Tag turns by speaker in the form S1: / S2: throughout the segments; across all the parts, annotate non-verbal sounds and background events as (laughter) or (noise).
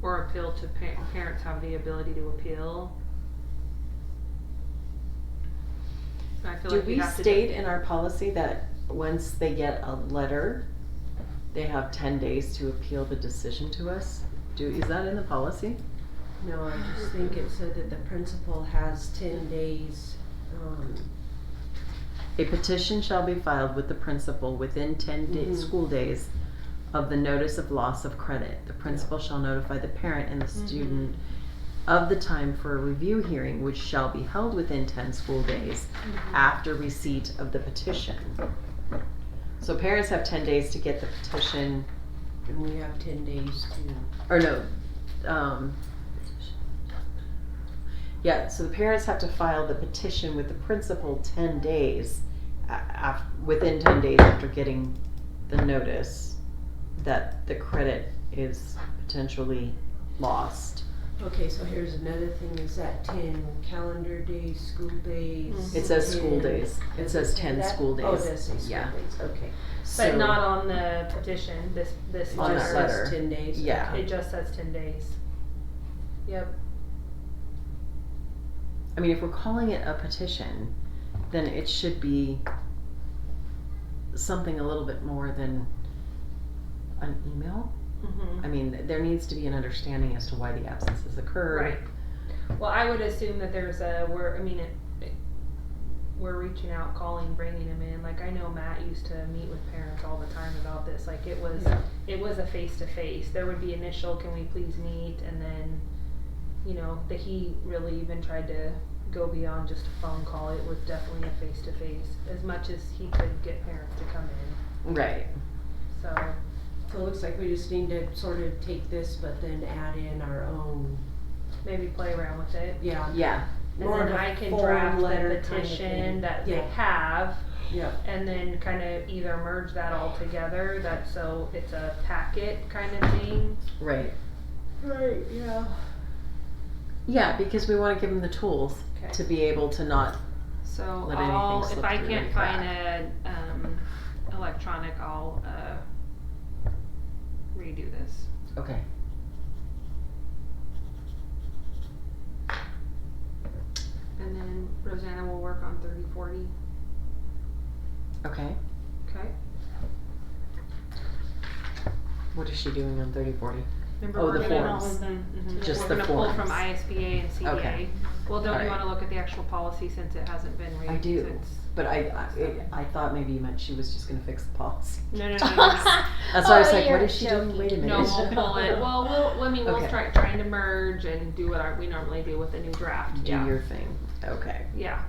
S1: Or appeal to pa- parents have the ability to appeal. I feel
S2: Do
S1: like we
S2: we
S1: have to.
S2: state in our policy that once they get a letter, they have ten days to appeal the decision to us? Do, is that in the policy?
S3: No, I just think it said that the principal has ten days, um,
S2: A petition shall be filed with the principal within ten da-
S1: Mm-hmm.
S3: Mhm.
S2: school days of the notice of loss of credit. The principal shall notify the parent and the
S1: Mm-hmm.
S2: student of the time for a review hearing, which shall be held within ten school days
S1: Mm-hmm.
S2: after receipt of the petition. So parents have ten days to get the petition,
S3: and we have ten days to,
S2: or no, um. Yeah, so the parents have to file the petition with the principal ten days a- af- within ten days after getting the notice that the credit is potentially lost.
S3: okay, so here's another thing, is that ten calendar days, school days?
S2: It says school
S3: 10
S2: days, it says ten
S3: that?
S2: school days.
S3: Oh, it does say school
S2: Yeah.
S3: days, okay.
S2: So-
S4: But not on the petition, this, this
S2: On
S3: It
S2: that
S3: just
S4: letter.
S2: letter.
S3: says ten days.
S2: Yeah.
S4: It just says ten days. Yep.
S2: I mean, if we're calling it a petition, then it should be something a little bit more than an email. I
S4: Mm-hmm.
S2: mean, there needs to be an understanding as to why the absences occurred.
S4: Right. Well, I would assume that there's a, we're, I mean, it, it- we're reaching out, calling, bringing them in. Like, I know Matt used to meet with parents all the time about this. Like, it was,
S3: Yeah.
S4: it was a face to face. There would be initial, can we please meet? And then, you know, that he really even tried to go beyond just a phone call. It was definitely a face to face, as much as he could get parents to come in.
S2: Right.
S4: So,
S3: So it looks like we just need to sort of take this, but then add in our own,
S4: maybe play around with it.
S3: yeah,
S2: Yeah.
S4: And
S3: More
S4: then
S3: of a
S4: I can
S3: form
S4: draft
S3: letter
S4: the
S3: kind of thing.
S4: petition that they
S3: Yeah.
S4: have
S3: yeah,
S4: and then kind of either merge that all together, that so it's a packet kind of thing.
S2: Right.
S3: right, yeah.
S2: Yeah, because we want to give them the tools to be able to not.
S4: So
S2: Let anything
S4: I'll, if
S2: slip
S4: I
S2: through
S4: can't
S2: the
S4: find a, um, electronic, I'll, uh, redo this.
S2: Okay.
S4: And then Rosanna will work on thirty forty,
S2: Okay.
S4: okay?
S2: What is she doing on thirty forty?
S4: Remember
S2: Oh,
S4: we're
S2: the
S4: gonna-
S2: forms.
S4: mhm,
S2: Just
S4: We're
S2: the
S4: gonna pull from
S2: forms.
S4: ISBA and CBA.
S2: Okay.
S4: Well, don't you
S2: Alright.
S4: wanna look at the actual policy since it hasn't been read
S2: I do.
S4: since-
S2: But I, I, it, I thought maybe you meant she was just going to fix
S4: (laughs)
S2: the policy.
S4: No, no,
S2: (laughs)
S4: no, no, no.
S2: That's why I was
S5: Oh,
S2: like, what
S5: you're
S2: is she doing? Wait a minute.
S4: No, we'll pull
S2: (laughs)
S4: it. Well, we'll, well, I mean, we'll
S2: Okay.
S4: start trying to merge and do what our, we normally do with a new draft,
S2: Do
S4: yeah,
S2: your thing. Okay.
S4: yeah.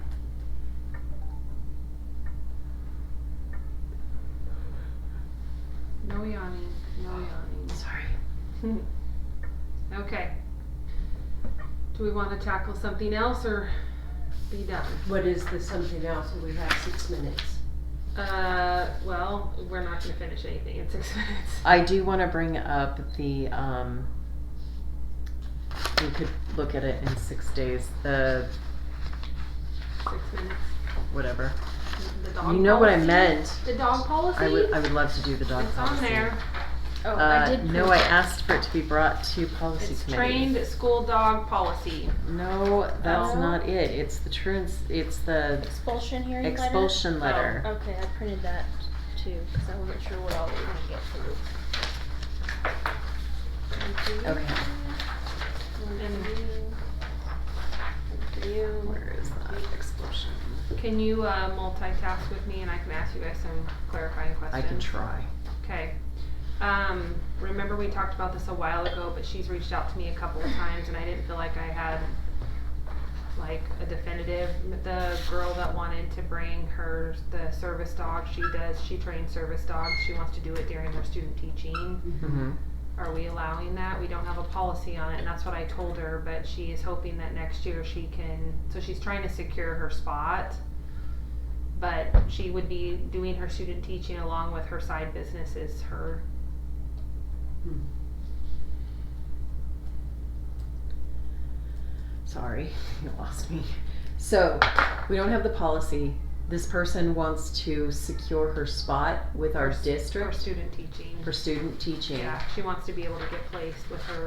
S4: No yawning, no yawning.
S2: Sorry.
S4: Okay. Do we wanna tackle something else or be done?
S3: What is the something else, we have six minutes.
S4: Uh, well, we're not gonna finish anything in six (laughs) minutes.
S2: I do want to bring up the, um, we could look at it in six days, the
S4: Six minutes.
S2: whatever.
S4: The dog
S2: You know what I
S4: policy?
S2: meant.
S4: The dog policy?
S2: I would, I would love to do the dog
S4: It's
S2: policy.
S4: on there.
S5: Oh, I
S2: Uh,
S5: did.
S2: no, I
S5: print
S2: asked for it to be brought to policy
S4: It's
S2: committee.
S4: trained school dog policy.
S2: No, that's
S5: Oh.
S2: not it. It's the truants, it's the
S5: Expulsion hearing letter? Oh,
S2: expulsion
S4: Oh.
S2: letter.
S5: Okay, I printed that too, cause I wasn't sure what all we were gonna get through.
S2: Okay,
S5: For you.
S2: where is that expulsion?
S4: Can you uh, multitask with me and I can ask you guys some clarifying
S2: I
S4: questions?
S2: can try.
S4: Okay. Um, remember we talked about this a while ago, but she's reached out to me a couple of times and I didn't feel like I had like a definitive. The girl that wanted to bring her the service dog, she does. She trains service dogs. She wants to do it during her student teaching.
S2: Mm-hmm.
S4: Are we allowing that? We don't have a policy on it, and that's what I told her, but she is hoping that next year she can, so she's trying to secure her spot. But she would be doing her student teaching along with her side businesses, her.
S2: Sorry, (laughs) you lost me. So, we don't have the policy. This person wants to secure her spot with our
S4: her s- Her
S2: district
S4: student teaching.
S2: for student teaching.
S4: Yeah, she wants to be able to get placed with her